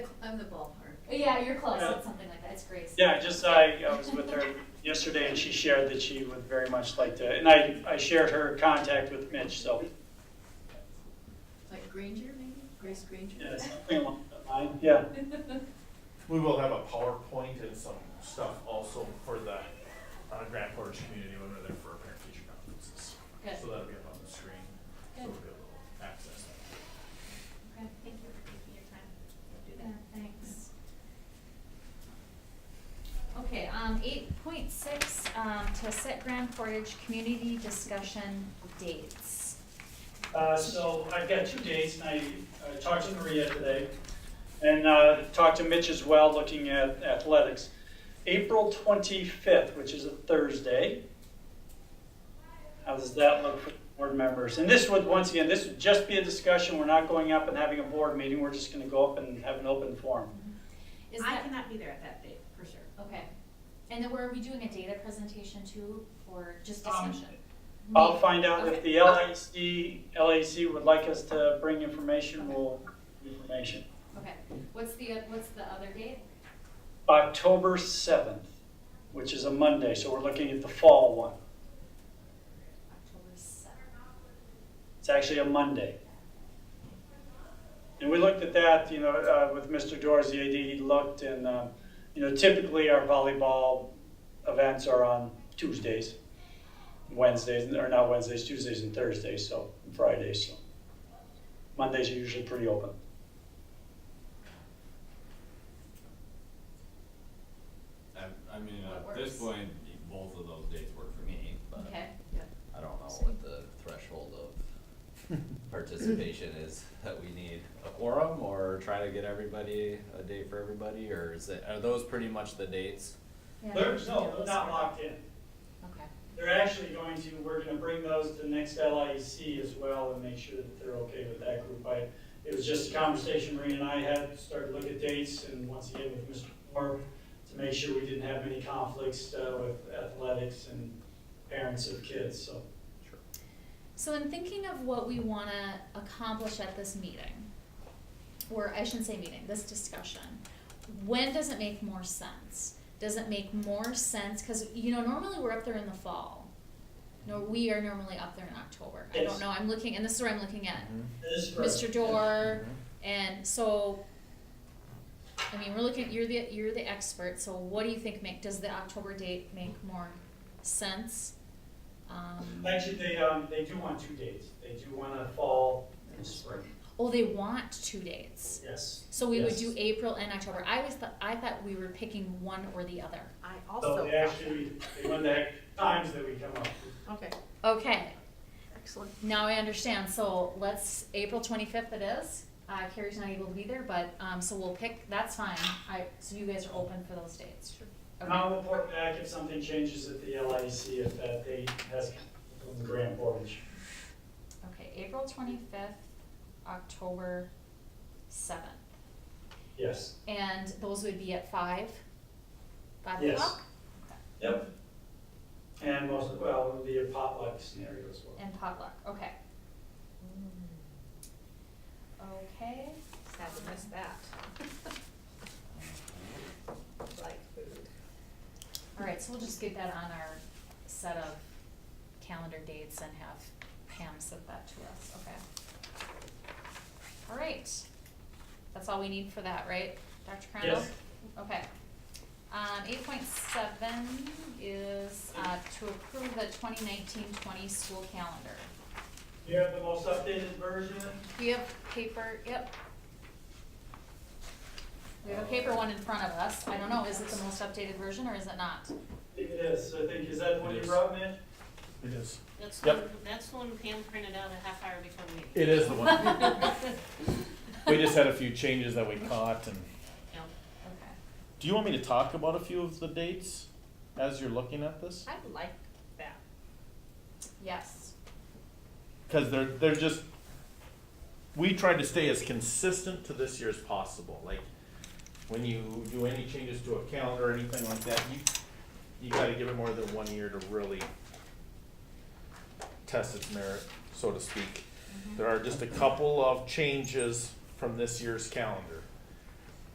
I'm the ballpark. Yeah, you're close. Yeah. It's something like that. It's Grace. Yeah, just I, I was with her yesterday and she shared that she would very much like to, and I, I shared her contact with Mitch, so, Like Granger, maybe? Grace Granger? yeah, something along that line, yeah. We will have a PowerPoint and some stuff also for the uh, Grand Portage community when we're there for our parent teacher conferences. Good. So that'll be up on the screen, so Good. we'll be able to access that. Okay, thank you for taking your time to do that. Thanks. Okay, um, eight point six, um, to set Grand Portage community discussion dates. Uh, so I've got two dates, and I, I talked to Maria today, and uh, talked to Mitch as well, looking at athletics. April 25th, which is a Thursday. How does that look for board members? And this would, once again, this would just be a discussion. We're not going up and having a board meeting. We're just going to go up and have an open forum. Is I that, cannot be there at that date, for sure. okay. And then were we doing a data presentation too, or just Um, discussion? I'll find out if Okay. the LAC, LAC would like us to bring information, we'll, information. Okay, what's the, what's the other date? October 7th, which is a Monday, so we're looking at the fall one. October seventh. It's actually a Monday. And we looked at that, you know, uh, with Mr. Doors, the AD, he looked and, uh, you know, typically our volleyball events are on Tuesdays, Wednesdays, or not Wednesdays, Tuesdays and Thursdays, so, and Fridays, so. Mondays are usually pretty open. I, I mean, What at this works? point, both of those dates work for me, but Okay, I don't know what the threshold of participation is that we need a quorum or try to get everybody a date for everybody, or is it, are those pretty much the dates? yeah. There's, no, they're not locked in. Okay, They're actually going to, we're gonna bring those to the next LIC as well and make sure that they're okay with that group. I, it was just a conversation Marie and I had, started to look at dates and once again with Mr. Moore to make sure we didn't have any conflicts, uh, with athletics and parents of kids, so. so in thinking of what we wanna accomplish at this meeting, or I shouldn't say meeting, this discussion, when does it make more sense? Does it make more sense, cause you know, normally we're up there in the fall. No, we are normally up there in October, I don't Yes. know, I'm looking, and this is where I'm looking at, Mm-hmm. This is for- Mr. Dorr, And so, I mean, we're looking, you're the, you're the expert, so what do you think make, does the October date make more sense? Um, Actually, they, um, they do want two dates. They do want a fall and spring. oh, they want two dates, Yes. so we would Yes. do April and October, I always thought, I thought we were picking one or the other. I So also. they actually, they want the times that we come up with. Okay, Okay, excellent. now I understand, so let's, April twenty-fifth it is, uh, Carrie's not able to be there, but, um, so we'll pick, that's fine, I, so you guys are open for those dates? And I'll report back if something changes at the LIC, if that date has from the Grand Portage. Okay, April twenty-fifth, October seventh. Yes. And those would be at five? Five Yes. o'clock? Yep. And most, well, it'll be a potluck scenario as well. And potluck, okay. Okay, Sad to miss that. Like food. all right, so we'll just get that on our set of calendar dates and have Pam send that to us, okay? All right, that's all we need for that, right, Dr. Crandall? Yes. Okay. Um, eight point seven is, uh, to approve the 2019-20 school calendar. Do you have the most updated version? We have paper, yep. We have a paper one in front of us. I don't know, is it the most updated version or is it not? I think it is, I think, is that the one you It is. brought, Mitch? It is. That's the Yep. one, that's the one Pam printed out a half hour before the meeting. It is the one. We just had a few changes that we caught and. No. Okay. Do you want me to talk about a few of the dates as you're looking at this? I like that. Yes. Cause they're, they're just, we tried to stay as consistent to this year as possible, like, when you do any changes to a calendar or anything like that, you, you gotta give it more than one year to really test its merit, so to speak. There are just a couple of changes from this year's calendar.